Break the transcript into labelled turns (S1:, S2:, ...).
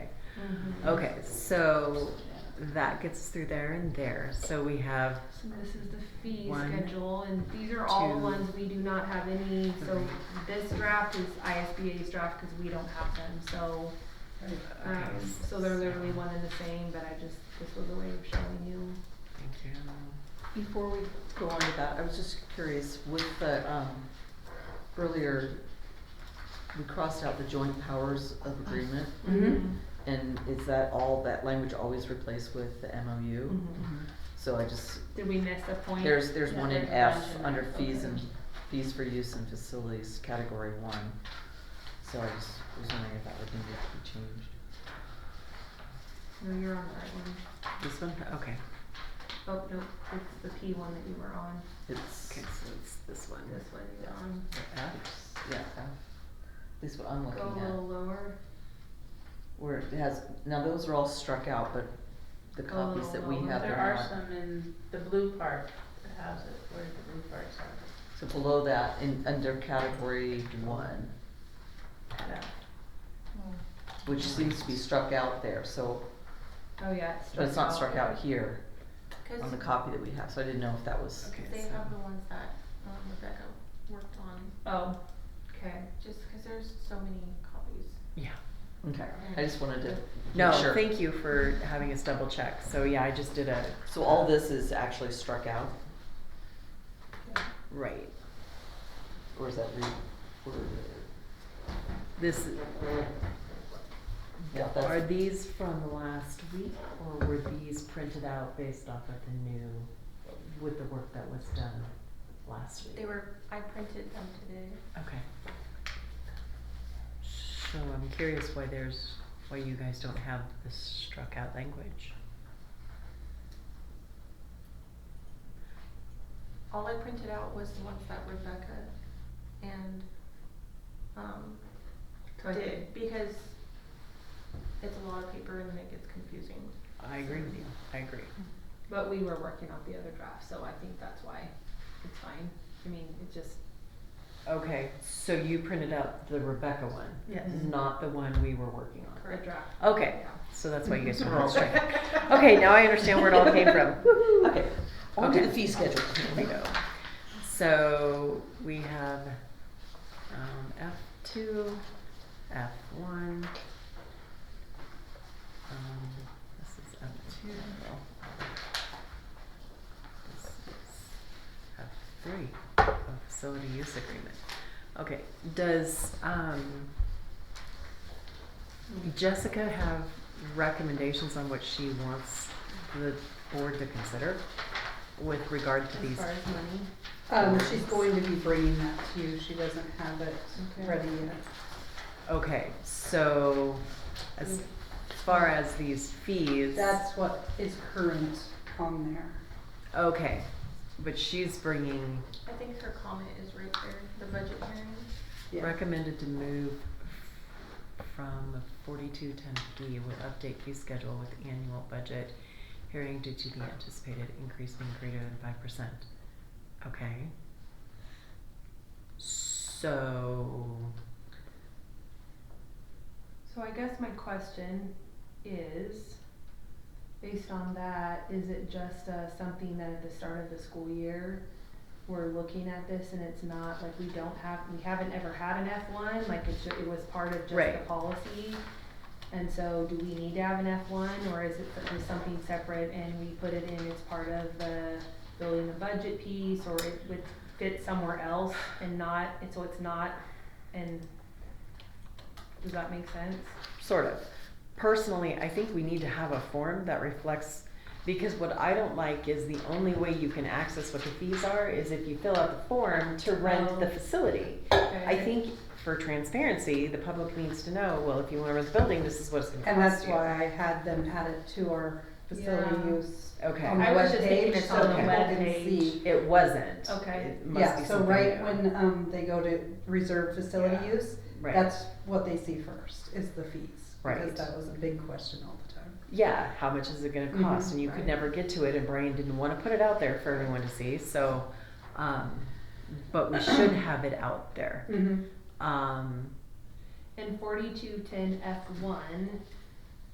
S1: Mm-hmm.
S2: Okay, so that gets us through there and there. So we have
S1: So this is the fee
S2: One,
S1: schedule, and these are all
S2: two,
S1: ones we do not have any, so
S2: three.
S1: this draft is ISBA's draft, cause we don't have them, so.
S2: okay.
S1: Um, so they're literally one and the same, but I just, this was a way of showing you.
S2: Thank you.
S3: Before we go on to that, I was just curious, with the, um, earlier, we crossed out the joint powers of agreement,
S2: Mhm.
S3: and is that all, that language always replaced with the MOU?
S2: Mm-hmm.
S1: Mhm.
S3: So I just,
S1: Did we miss a point?
S3: there's, there's
S1: Yeah,
S3: one in
S1: there's a
S3: F,
S1: bunch in
S3: under
S1: there.
S3: fees and,
S1: Okay.
S3: fees for use and facilities, category one. So I just was wondering if that would need to be changed.
S1: No, you're on the right one.
S2: This one? Okay.
S1: Oh, no, it's the P one that you were on,
S3: It's,
S2: Okay, so it's this one.
S1: this one you were on.
S2: The F.
S3: it's, yeah, F. at least what I'm looking
S1: Go
S3: at.
S1: a little lower,
S3: Where it has, now those are all struck out, but the copies that we
S1: Oh,
S3: have
S4: There
S3: are
S4: are
S3: not.
S4: some in the blue part that has it, where the blue part's at.
S3: So below that, in, under category one,
S4: Yeah.
S3: which seems to be struck out there, so,
S1: oh yeah, it's struck out.
S3: but it's not struck out here on
S5: Cause
S3: the copy that we have, so I didn't know if that was,
S2: Okay.
S5: they
S2: so-
S5: have the ones that um, Rebecca worked on,
S1: Oh, okay.
S5: just cause there's so many copies.
S2: Yeah.
S3: okay, I just wanted to make
S2: No,
S3: sure.
S2: thank you for having us double check. So yeah, I just did a
S3: So all this is actually struck out,
S2: right.
S3: or is that re, or,
S2: This
S3: yeah,
S2: are
S3: that's,
S2: these from last week or were these printed out based off of the new with the work that was done last week?
S5: They were, I printed them today.
S2: Okay. So I'm curious why there's, why you guys don't have this struck out language.
S5: All I printed out was the ones that Rebecca and, um,
S1: So I think-
S5: did, because it's a lot of paper and then it gets confusing.
S2: I agree with you, I agree.
S1: But we were working on the other draft, so I think that's why it's fine. I mean, it just,
S2: Okay, so you printed out the Rebecca one?
S4: Yes.
S2: Not the one we were working on?
S1: a draft.
S2: Okay,
S1: Yeah.
S2: so that's why you guys don't have it straight. Okay, now I understand where it all came from. Woo-hoo.
S3: okay, on to
S2: Okay.
S3: the fee schedule.
S2: There we go. So we have um, F2, F1. Um, this is F2. This is F3, a facility use agreement. Okay, does um, Jessica have recommendations on what she wants the board to consider with regard to
S1: As
S2: these
S1: far as money,
S6: Um, she's going to be bringing that to you, she doesn't have it
S1: Okay.
S6: ready yet.
S2: Okay, so as far as these fees,
S6: That's what is current on there.
S2: okay, but she's bringing
S5: I think her comment is right there, the budget hearing.
S6: Yeah.
S2: recommended to move from forty-two ten D with update fee schedule with annual budget hearing due to the anticipated increase being greater than five percent. Okay. So,
S1: So I guess my question is, based on that, is it just uh, something that at the start of the school year, we're looking at this and it's not, like, we don't have, we haven't ever had an F one, like, it's, ju- it was part of just the
S2: Right.
S1: policy? And so do we need to have an F one, or is it just something separate and we put it in as part of the building the budget piece, or it would fit somewhere else and not, and so it's not, and does that make sense?
S2: sort of. Personally, I think we need to have a form that reflects, because what I don't like is the only way you can access what the fees are is if you fill out the form to rent the
S1: Oh.
S2: facility. I think for transparency, the public needs to know, well, if you wanna rent the building, this is what it's gonna cost
S6: And that's
S2: you.
S6: why I had them add it to our facility
S1: Yeah.
S6: use
S2: Okay.
S6: on the
S1: I was just thinking
S6: webpage
S1: it's
S6: so
S1: on the
S6: people can
S1: webpage.
S6: see.
S2: It wasn't.
S1: Okay.
S2: It must
S6: Yeah,
S2: be
S6: so
S2: something
S6: right
S2: new.
S6: when, um, they go to reserve facility
S1: Yeah.
S6: use,
S2: Right.
S6: that's what they see first, is the fees.
S2: Right.
S6: Because that was a big question all the time.
S2: yeah, how much is it going to cost?
S6: Mhm,
S2: and you could
S6: right.
S2: never get to it, and Brian didn't want to put it out there for everyone to see. So, um, but we should have it out there.
S6: Mm-hmm.
S2: Um,
S1: And forty-two ten F one